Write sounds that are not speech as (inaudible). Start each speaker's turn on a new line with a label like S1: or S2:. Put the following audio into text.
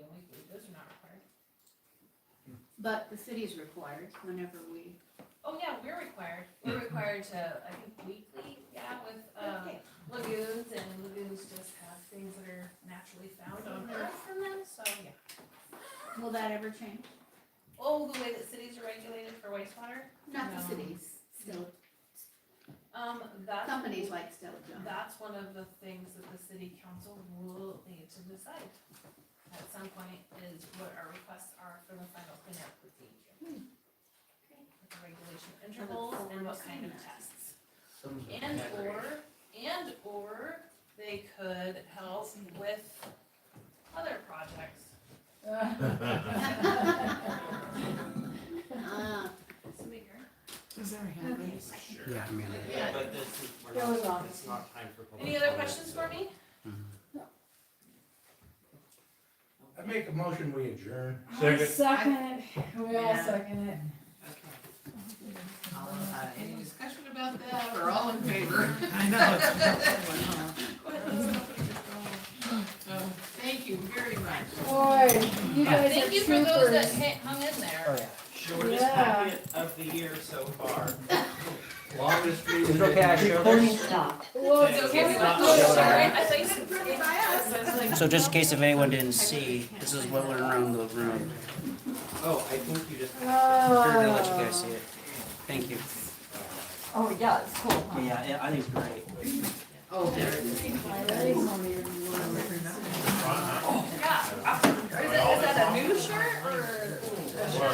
S1: But the city's required whenever we,
S2: Oh, yeah, we're required, we're required to, I think weekly, yeah, with, um, lagoons, and lagoons just have things that are naturally found on earth in them, so, yeah.
S1: will that ever change?
S2: Oh, the way that cities are regulated for wastewater,
S1: Not the
S2: No.
S1: cities, still,
S2: um, that's.
S1: companies like Stella Jones.
S2: That's one of the things that the city council will need to decide at some point is what our requests are for the final cleanup procedure. With the regulation intervals and what kind of tests. And or, and or they could help with other projects.
S1: (laughs) Ah,
S3: Is there a hand raised?
S4: Yeah, I mean,
S2: Yeah.
S5: But this is, we're
S3: There was
S5: not,
S3: not.
S5: it's not time for public.
S2: Any other
S5: comment,
S2: questions
S5: so-
S2: for me?
S6: I make a motion, we adjourn.
S3: Second. Second, we all
S7: Yeah.
S3: second it.
S7: Okay. All, uh, any discussion about that, or all in favor?
S3: (laughs) I know. it's a tough one, huh?
S7: So, Oh, thank you very much.
S3: Boy, you guys are
S2: Thank you for those that
S3: troopers.
S2: ha- hung in there.
S5: Sure, we're just happy of the year so far.
S6: Longest meeting.
S4: It's okay, I showed her.
S3: Well, it's
S5: It's
S3: okay, we
S5: not
S3: went
S2: Oh,
S3: through it,
S5: showing.
S2: sorry,
S3: right?
S2: I thought you said approved by us. I was like,
S4: So just in case if anyone didn't see, this is what went around the room.
S5: Oh, I think you just.
S4: Figured I'd let you guys see it. Thank you.
S8: Oh, yeah, it's cool, huh?
S4: Yeah, yeah, I think it's great.
S7: Oh, there it is.
S3: Oh, alright.
S2: Yeah,